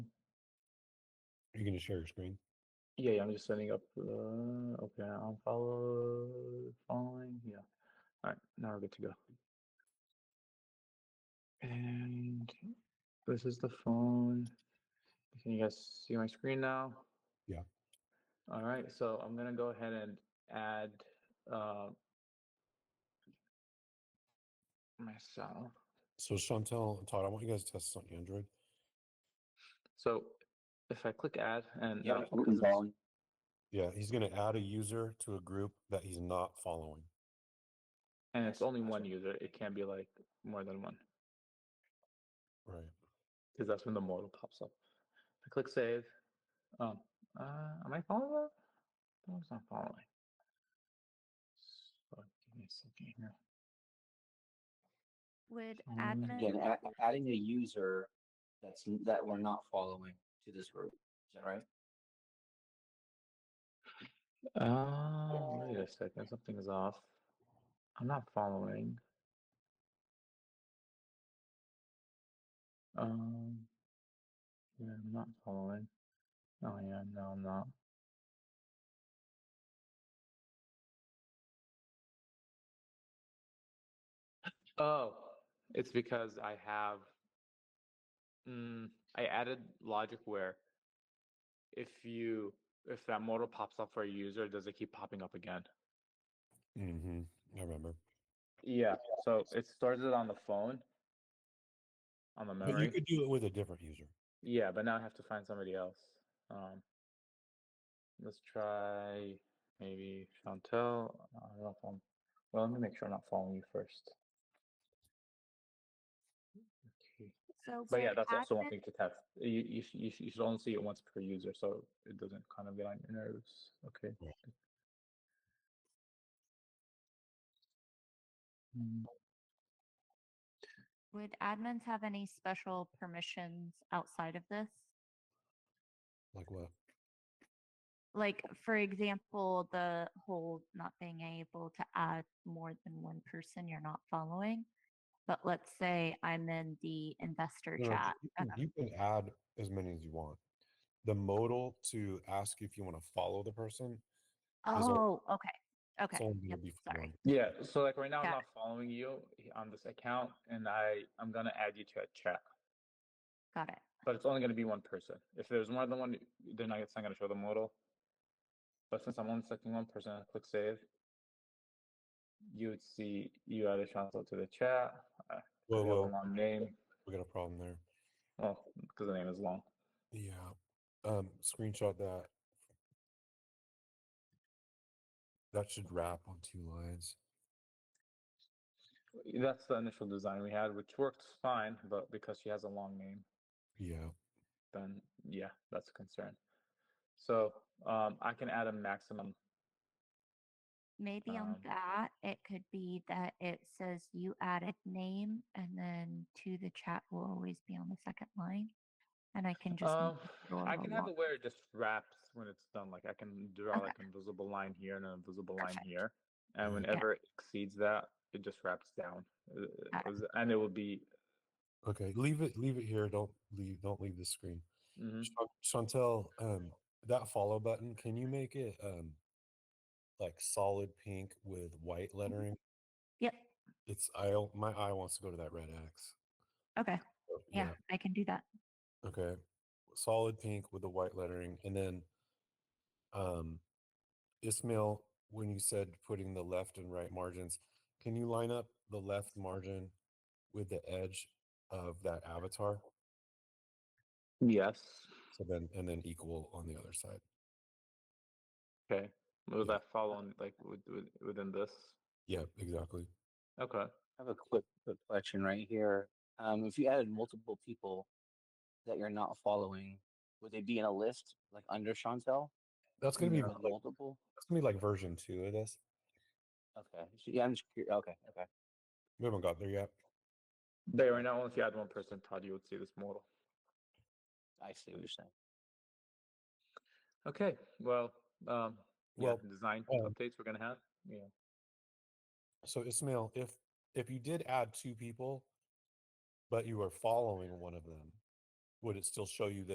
you can just share your screen. Yeah, yeah, I'm just setting up the, okay, unfollow, following, yeah. All right, now we're good to go. And this is the phone. Can you guys see my screen now? Yeah. All right, so I'm gonna go ahead and add, uh, myself. So Chantel and Todd, I want you guys to test this on Android. So if I click add and. Yeah, that'll I'm focus us- following. Yeah, he's gonna add a user to a group that he's not following. And it's Yes, only that's one right. user. It can't be like more than one. Right. because that's when the modal pops up. I click save. Um, uh, am I following that? No, it's not following. So give me a second here. Would Um, admin Again, a- adding a user that's, n- that we're not following to this group, is that right? Um, wait a second. Something is off. I'm not following. Um, yeah, I'm not following. Oh yeah, no, I'm not. Oh, it's because I have. Mm, I added logic where if you if that modal pops up for a user, does it keep popping up again? Mm-hmm. I remember. Yeah. So it stores it on the phone, on the But you memory. could do it with a different user. Yeah, but now I have to find somebody else. Um, let's try maybe Chantel. I don't know if I'm. Well, let me make sure I'm not following you first. Okay. so But yeah, would that's also one admin- thing to test. You, you, sh- you, sh- you should only see it once per user, so it doesn't kind of get on your nerves. Okay. Right. Mm, Would admins have any special permissions outside of this? Like what? Like, for example, the whole not being able to add more than one person you're not following. But let's say I'm in the investor No, chat. you uh, can- You can add as many as you want. The modal to ask you if you want to follow the person is a- Oh, okay, okay. it's only yep, gonna be for sorry. one. Yeah, so like right now, I'm Got not following you on this account, and I, I'm gonna add you to a chat, Got it. but it's only gonna be one person. If there's more than one, then I- it's not gonna show the modal. But since I'm only selecting one person, I click save. You would see you added Chantel to the chat. I Whoa, have a whoa, long name. we got a problem there. Well, because the name is long. Yeah. Um, screenshot that. That should wrap on two lines. That's the initial design we had, which worked fine, but because she has a long name, Yeah. then yeah, that's a concern. So um, I can add a maximum. Maybe on Um, that, it could be that it says you added name and then to the chat will always be on the second line. And I can just. Um, make it a I little can have long- it where it just wraps when it's done. Like I can draw Okay. like an invisible line here and an invisible line Perfect. Mm-hmm. here, and Mhm. Yeah. whenever it exceeds that, it just wraps down, Uh, Got is- and it will be. Okay. Leave it. Leave it here. Don't leave. Don't leave the screen. mhm. Chan- Chantel, um, that follow button. Can you make it um, like solid pink with white lettering? Yep, It's I. o- My eye wants to go to that red X. okay, Oh, yeah, I can do that. Okay. Solid pink with the white lettering. And then um Ismail, when you said putting the left and right margins, can you line up the left margin with the edge of that avatar? Yes. So then and then equal on the other side. Okay. Was Yeah. that following like with, with, within this? Yeah, exactly. Okay. I have a quick, quick question right here. Um, if you added multiple people that you're not following, would they be in a list like under Chantel? That's gonna be Yeah. With like, multiple? that's gonna be like version two of this. Okay. so- Yeah, I'm just curious. Okay, okay. We haven't got there yet. They right now, only if you add one person, Todd, you would see this model. I see what you're saying. Okay. Well, um, yeah, Well, design um, updates we're gonna have. Yeah. So Ismail, if if you did add two people, but you were following one of them, would it still show you the